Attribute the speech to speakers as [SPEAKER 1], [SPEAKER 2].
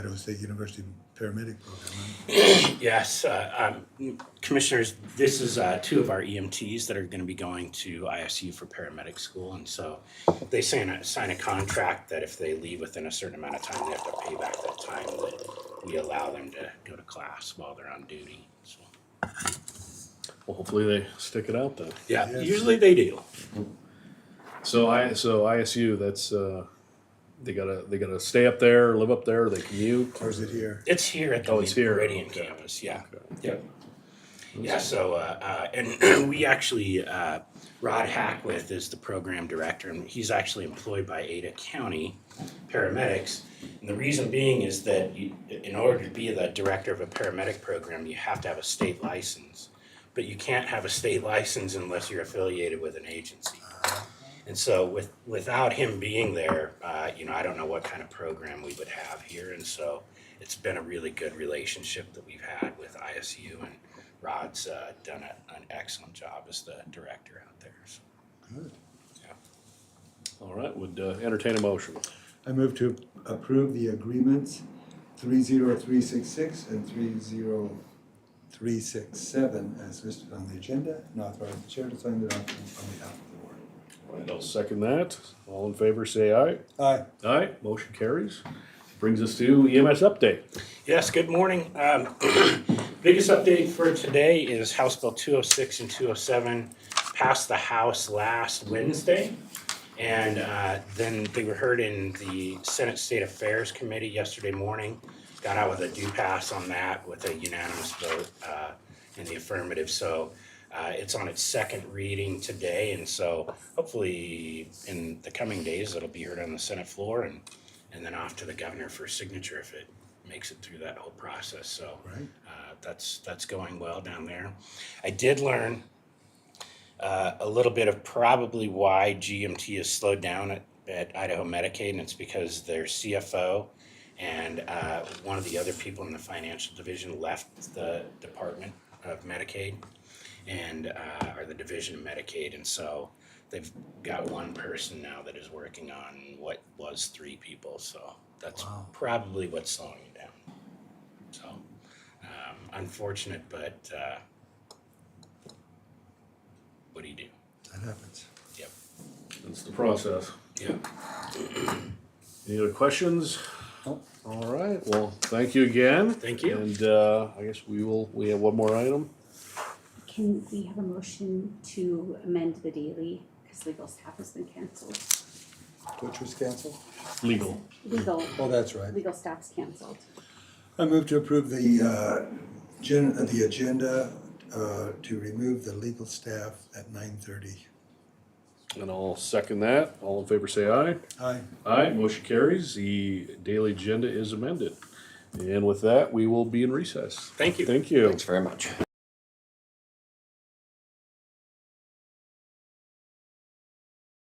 [SPEAKER 1] Idaho State University paramedic program. huh?
[SPEAKER 2] Yes, uh, um, Commissioners, this is uh, two of our EMTs that are going to be going to ISU for paramedic school. And so they sign a, sign a contract that if they leave within a certain amount of time, they have to pay back that time that we allow them to go to class while they're on duty. So,
[SPEAKER 3] Well, hopefully they stick it out then.
[SPEAKER 2] Yeah,
[SPEAKER 1] Yes.
[SPEAKER 2] usually they do.
[SPEAKER 3] So I so ISU that's uh, they gotta they gotta stay up there, live up there, they commute.
[SPEAKER 1] Or is it here?
[SPEAKER 2] It's here at the
[SPEAKER 3] Oh, it's here.
[SPEAKER 2] Meridian
[SPEAKER 3] Okay.
[SPEAKER 2] campus, yeah.
[SPEAKER 3] Okay.
[SPEAKER 2] Yep. Yeah, so, uh, uh, and we actually, uh, Rod Hackwith is the program director, and he's actually employed by Ada County paramedics. And the reason being is that you, in order to be the director of a paramedic program, you have to have a state license. But you can't have a state license unless you're affiliated with an agency. And so with, without him being there, uh, you know, I don't know what kind of program we would have here. And so it's been a really good relationship that we've had with ISU and Rod's, uh, done a, an excellent job as the director out there. So,
[SPEAKER 1] Good.
[SPEAKER 2] yeah.
[SPEAKER 3] All right, would uh, entertain a motion.
[SPEAKER 1] I move to approve the agreements three zero three six six and three zero three six seven as listed on the agenda and authorize the chair to sign the documents on behalf of the board.
[SPEAKER 3] All right, I'll second that. All in favor, say aye.
[SPEAKER 1] Aye.
[SPEAKER 3] Aye. Motion carries. Brings us to EMS update.
[SPEAKER 2] Yes, good morning. Um, Biggest update for today is House Bill 206 and 207 passed the House last Wednesday. And uh, then they were heard in the Senate State Affairs Committee yesterday morning. Got out with a due pass on that with a unanimous vote uh, in the affirmative. So uh, it's on its second reading today. And so hopefully in the coming days, it'll be heard on the Senate floor and, and then off to the governor for signature if it makes it through that whole process. So
[SPEAKER 1] Right.
[SPEAKER 2] uh, that's that's going well down there. I did learn uh, a little bit of probably why GMT is slowed down at, at Idaho Medicaid, and it's because their CFO and uh, one of the other people in the financial division left the Department of Medicaid and uh, or the division of Medicaid, and so they've got one person now that is working on what was three people. So that's
[SPEAKER 1] Wow.
[SPEAKER 2] probably what's slowing it down. So um, unfortunate, but uh, what do you do?
[SPEAKER 1] That happens.
[SPEAKER 2] Yep.
[SPEAKER 3] That's the process.
[SPEAKER 2] Yep.
[SPEAKER 3] Any other questions?
[SPEAKER 1] Nope.
[SPEAKER 3] All right, well, thank you again.
[SPEAKER 2] Thank you.
[SPEAKER 3] And uh, I guess we will, we have one more item.
[SPEAKER 4] Can we have a motion to amend the daily, because legal staff has been canceled?
[SPEAKER 1] Which was canceled?
[SPEAKER 3] Legal.
[SPEAKER 4] Legal,
[SPEAKER 1] Oh, that's right.
[SPEAKER 4] legal staff's canceled.
[SPEAKER 1] I move to approve the, uh, gen, uh, the agenda, uh, to remove the legal staff at nine thirty.
[SPEAKER 3] And I'll second that. All in favor, say aye.
[SPEAKER 1] Aye.
[SPEAKER 3] Aye, motion carries. The daily agenda is amended. And with that, we will be in recess.
[SPEAKER 2] Thank you.
[SPEAKER 3] Thank you.
[SPEAKER 5] Thanks very much.